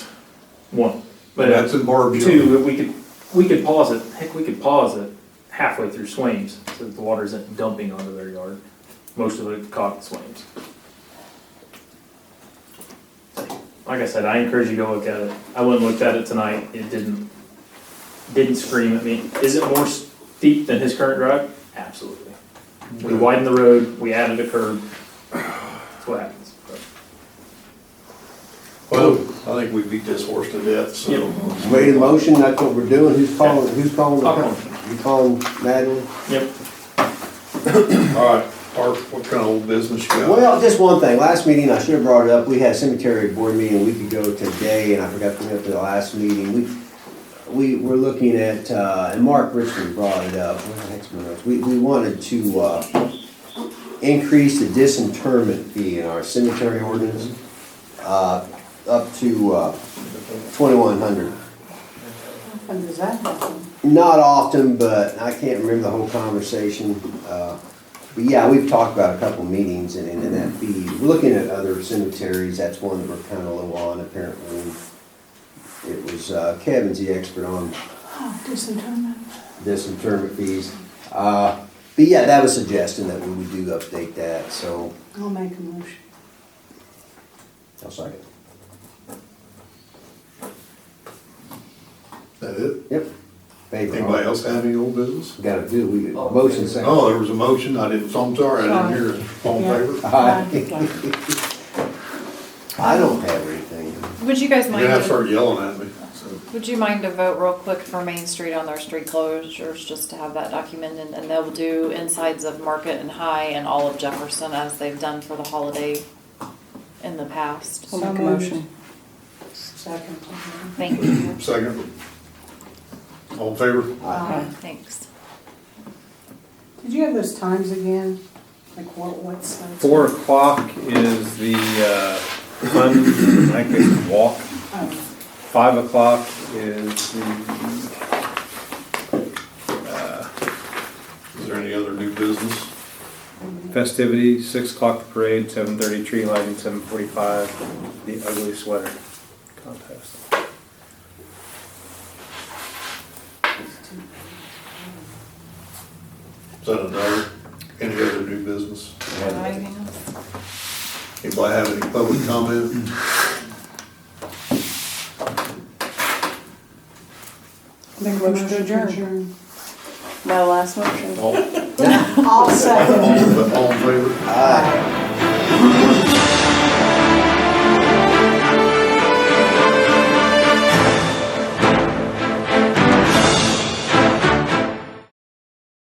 One. But uh, That's in Barb two, if we could, we could pause it, heck, we could pause it halfway through swains so that the water isn't dumping onto their yard. Most of it caught in swains. Like I said, I encourage you to go look at it. I went and looked at it tonight. It didn't, didn't scream at me. Is it more steep than his current drive? Absolutely. We widened the road, we added a curb. That's what happens. Well, I think we beat this horse to death, so. Made a motion, that's what we're doing, who's calling, who's calling? the- I'll call. You calling Madeline? Yep. All right, Art, what kind of old business you got? Well, just one thing, last meeting, I should have brought it up, we had a cemetery board meeting a week ago today, and I forgot to bring it up at the last meeting. We, we were looking at, uh, and Mark Richmond brought it up, Where the heck's my notes? we, we wanted to, uh, increase the disinterment fee in our cemetery ordinance, uh, up to, uh, twenty-one hundred. When does that happen? Not often, but I can't remember the whole conversation. uh, But yeah, we've talked about a couple meetings and, and that fee. We're Looking at other cemeteries, that's one that we're kind of low on apparently. It was, uh, Kevin's the expert on Oh, disinterment. disinterment fees. Uh, But yeah, that was suggesting that we would do update that, so. I'll make a motion. I'll second. That it? Yep. Favor, all. Anybody else have any old business? Gotta do, we, motion second. Oh, there was a motion, I didn't, so I'm sorry, I didn't hear it. All in favor? Aye. I don't have anything. Would you guys You're mind, gonna have to to- start yelling at me, so. would you mind to vote real quick for Main Street on their street closures, just to have that documented? And they'll do insides of Market and High and all of Jefferson as they've done for the holiday in the past. I'll make a motion. Second. Thank you, Second. All in favor? thanks. Did you have those times again? Like what, what's? the- Four o'clock is the, uh, fun, I could walk. Oh, Five o'clock is the, Is there any other new business? festivities, six o'clock the parade, seven thirty tree lighting, seven forty-five, the ugly sweater contest. it's two. Is that another, any other new business? Anything else? Anybody have any public comment? Make a motion to adjourn. My last motion. All, all I'll second. in all in favor? Aye.